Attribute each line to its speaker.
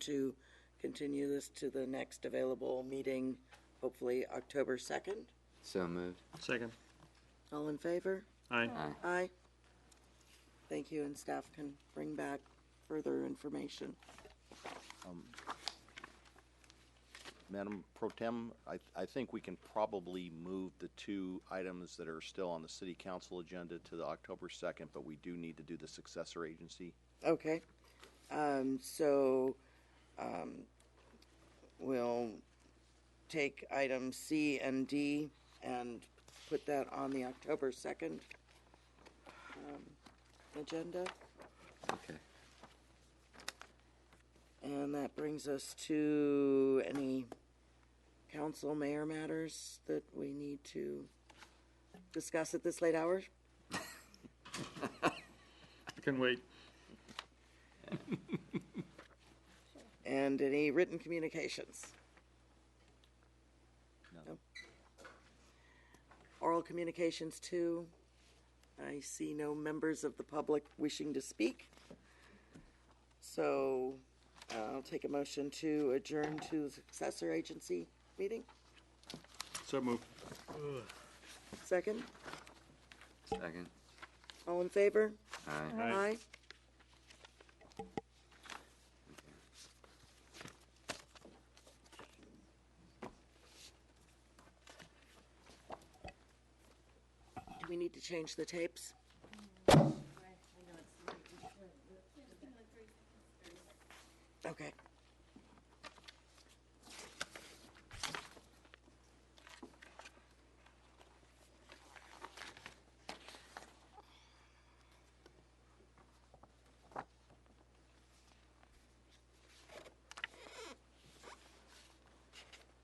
Speaker 1: to continue this to the next available meeting, hopefully October 2nd.
Speaker 2: So moved.
Speaker 3: Second.
Speaker 1: All in favor?
Speaker 3: Aye.
Speaker 1: Aye. Thank you, and staff can bring back further information.
Speaker 4: Madam Pro Tem, I, I think we can probably move the two items that are still on the city council agenda to the October 2nd, but we do need to do the successor agency.
Speaker 1: Okay, um, so, um, we'll take item C and D and put that on the October second, um, agenda.
Speaker 2: Okay.
Speaker 1: And that brings us to any council mayor matters that we need to discuss at this late hour?
Speaker 3: I can wait.
Speaker 1: And any written communications? No. Oral communications too. I see no members of the public wishing to speak. So I'll take a motion to adjourn to the successor agency meeting.
Speaker 3: So moved.
Speaker 1: Second,
Speaker 2: Second.
Speaker 1: all in favor?
Speaker 2: Aye.
Speaker 3: Aye.
Speaker 1: Do we need to change the tapes?